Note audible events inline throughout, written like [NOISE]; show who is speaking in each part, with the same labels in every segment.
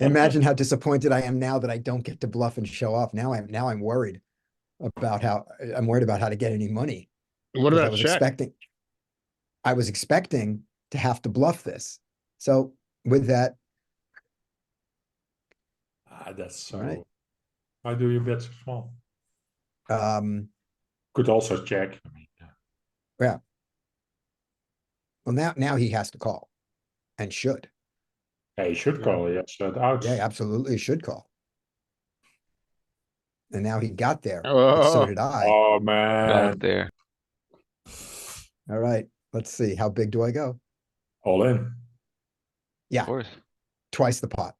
Speaker 1: Imagine how disappointed I am now that I don't get to bluff and show off. Now I'm now I'm worried about how I'm worried about how to get any money.
Speaker 2: What
Speaker 1: 'cause I
Speaker 2: about
Speaker 1: was
Speaker 2: check?
Speaker 1: expecting I was expecting to have to bluff this. So with that,
Speaker 3: Ah, that's so.
Speaker 1: Right.
Speaker 3: Why do you bet so small?
Speaker 1: um,
Speaker 3: Could also check. I mean, uh,
Speaker 1: well now now he has to call and should.
Speaker 3: Yeah, you should
Speaker 2: Yeah.
Speaker 3: call. Yeah, shut out.
Speaker 1: Yeah, he absolutely should call. And now he got there. but So
Speaker 2: Oh,
Speaker 1: did I.
Speaker 3: Oh man,
Speaker 1: Um,
Speaker 4: Not there.
Speaker 1: All right, let's see. How big do I go?
Speaker 3: all in.
Speaker 1: Yeah.
Speaker 4: Of course.
Speaker 1: Twice the pot.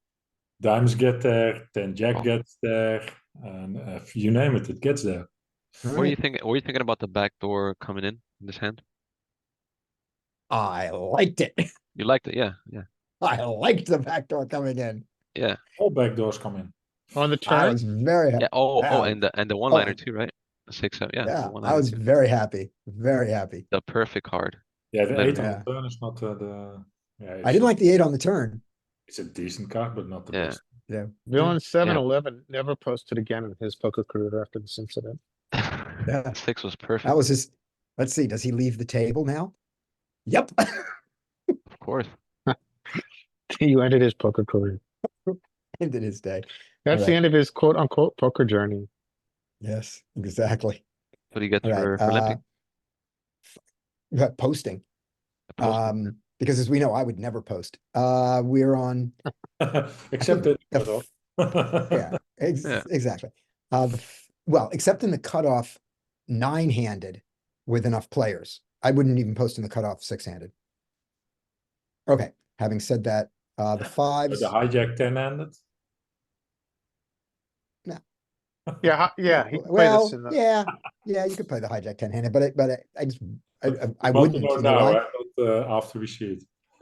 Speaker 3: Dimes get there, then Jack
Speaker 4: Oh.
Speaker 3: gets there, and uh, you name it, it gets there.
Speaker 1: All
Speaker 4: What are
Speaker 1: right.
Speaker 4: you thinking? What are you thinking about the back door coming in in this hand?
Speaker 1: I liked it. [LAUGHS]
Speaker 4: You liked it, yeah, yeah.
Speaker 1: I liked the backdoor coming in.
Speaker 3: All back doors come in.
Speaker 2: on the
Speaker 1: I
Speaker 2: turn,
Speaker 1: was very happy.
Speaker 4: Yeah. Oh, oh,
Speaker 1: yeah.
Speaker 4: and the and the one liner
Speaker 1: and-
Speaker 4: too, right? The Six, seven, yeah. the
Speaker 1: Yeah, I
Speaker 4: one-liner
Speaker 1: was
Speaker 4: too.
Speaker 1: very happy, very happy.
Speaker 4: The perfect card.
Speaker 3: Yeah, the eight
Speaker 1: Yeah.
Speaker 3: on the turn is not uh, the. Yeah,
Speaker 1: I
Speaker 3: it's-
Speaker 1: didn't like the eight on the turn.
Speaker 3: It's a decent card, but not the
Speaker 4: Yeah.
Speaker 3: best. [LAUGHS]
Speaker 2: villain seven eleven never posted again in his poker career after this [LAUGHS] incident.
Speaker 1: Yeah.
Speaker 4: [LAUGHS] Six was perfect,
Speaker 1: That was his, let's see, does he leave the table now? Yep. [LAUGHS]
Speaker 4: of course.
Speaker 2: You ended his poker career.
Speaker 1: Ended his day.
Speaker 2: That's the
Speaker 1: Alright.
Speaker 2: end of his quote unquote poker journey.
Speaker 1: Yes, exactly.
Speaker 4: What do you get
Speaker 1: All right,
Speaker 4: for for limping?
Speaker 1: uh, f- Posting,
Speaker 4: The post-
Speaker 1: um, because as we know, I would never post. Uh, we're on,
Speaker 3: Except that.
Speaker 1: the
Speaker 3: [LAUGHS]
Speaker 1: f- yeah, ex-
Speaker 4: Yeah.
Speaker 1: exactly. Uh, the f- well, except in the cutoff nine-handed with enough players. I wouldn't even post in the cutoff six-handed. Okay, having said that, uh, the fives.
Speaker 3: The hijack ten handed.
Speaker 2: Yeah, hi- yeah, he played
Speaker 1: Well,
Speaker 2: this in the,
Speaker 1: yeah, yeah, you could play the hijack ten-handed, but I, but I, I just, I, I- I
Speaker 3: Want to
Speaker 1: wouldn't.
Speaker 3: know
Speaker 1: Because
Speaker 3: now, eh, but, uh, after we see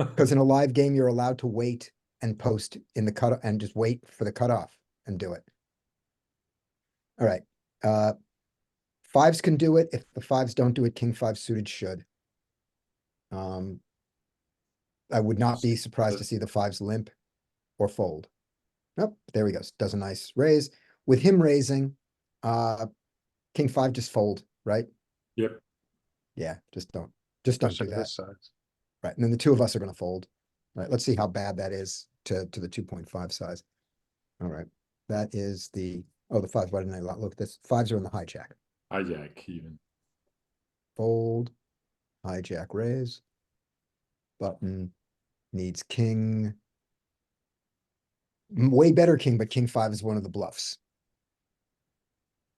Speaker 3: it.
Speaker 1: in a live game, you're allowed to wait and post in the cut and just wait for the cutoff and do it. All right, uh, fives can do it. If the fives don't do it, king five suited should. Um, I would not be surprised to see the fives limp or fold. Nope, there he goes. Does a nice raise. With him raising, uh, king five just fold, right?
Speaker 3: Yep.
Speaker 1: Yeah, just don't, just don't do
Speaker 2: sort of
Speaker 1: that.
Speaker 2: this size.
Speaker 1: Right, and then the two of us are gonna fold. Right, let's see how bad that is to, to the two point five size. All right, that is the, oh, the fives, why didn't I lo- look at this? Fives are in the hijack.
Speaker 3: Hijack even.
Speaker 1: Fold, hijack, raise. Button needs king. M- Way better king, but king five is one of the bluffs.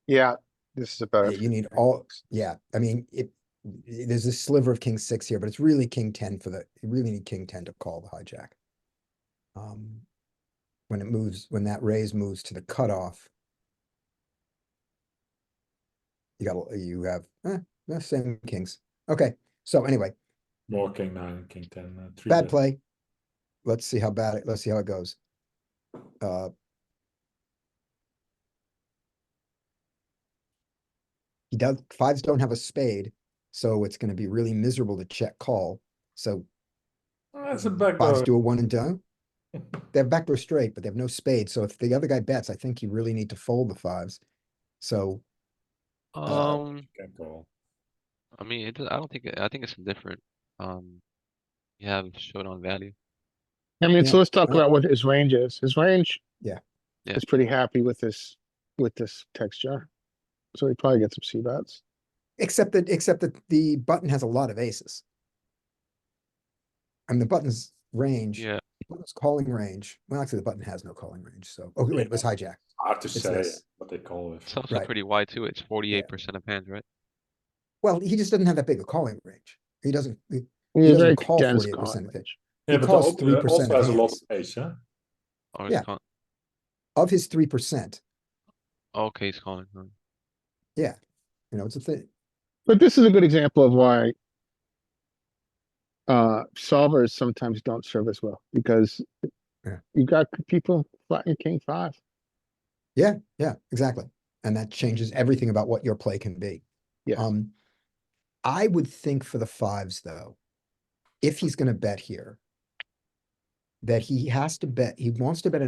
Speaker 2: Yeah, this is
Speaker 1: Yeah,
Speaker 2: about.
Speaker 1: You need all, yeah, I mean, it, it- there's a sliver of king six here, but it's really king ten for the, you really need king ten to call the hijack. Um, when it moves, when that raise moves to the cutoff. You got, you have, eh, the same kings. Okay, so anyway,
Speaker 3: More king nine, king ten, uh, three.
Speaker 1: bad
Speaker 3: bet.
Speaker 1: play. Let's see how bad it, let's see how it goes. Uh. He does, fives don't have a spade, so it's gonna be really miserable to check call, so
Speaker 3: That's a back
Speaker 1: fives
Speaker 3: door.
Speaker 1: do a one and done. They have backdoor straight, but they have no spade, so if the other guy bets, I think you really need to fold the fives. So,
Speaker 4: Um,
Speaker 3: Can call.
Speaker 4: I mean, it, does- I don't think, I think it's indifferent. Um, you have showdown value.
Speaker 2: I mean, so
Speaker 1: Yeah.
Speaker 2: let's talk
Speaker 1: Uh,
Speaker 2: about what his range is. His range.
Speaker 1: Yeah.
Speaker 4: Yeah.
Speaker 2: Is pretty happy with this, with this texture. So he probably gets some C bets.
Speaker 1: except that, except that the button has a lot of aces. And the button's range.
Speaker 4: Yeah,
Speaker 1: Button's calling range. Well, actually, the button has no calling range, so, oh, wait, it was hijack.
Speaker 3: Hard to
Speaker 1: It's
Speaker 3: say
Speaker 1: less.
Speaker 3: what they call it.
Speaker 4: it's also
Speaker 1: Right.
Speaker 4: pretty wide too. It's forty-eight percent of hands, right?
Speaker 1: Well, he just doesn't have that big a calling range. He doesn't, he-
Speaker 2: He's
Speaker 1: doesn't
Speaker 2: very
Speaker 1: call
Speaker 2: dense
Speaker 1: 48%
Speaker 2: calling
Speaker 1: of it.
Speaker 2: range.
Speaker 3: Yeah,
Speaker 1: It
Speaker 3: but
Speaker 1: costs
Speaker 3: also, uh,
Speaker 1: 3%
Speaker 3: also has a lot
Speaker 1: hands.
Speaker 3: of ace, huh?
Speaker 4: Or he's
Speaker 1: Yeah.
Speaker 4: calling,
Speaker 1: of his three percent,
Speaker 4: okay, he's calling. huh.
Speaker 1: you know, it's a thing.
Speaker 2: But this is a good example of why. Uh, solvers sometimes don't serve as well because.
Speaker 1: Yeah.
Speaker 2: You got people flattening king five.
Speaker 1: Yeah, exactly. And that changes everything about what your play can be.
Speaker 2: Yeah.
Speaker 1: Um, I would think for the fives, though, if he's gonna bet here, that he has to bet, he wants to bet a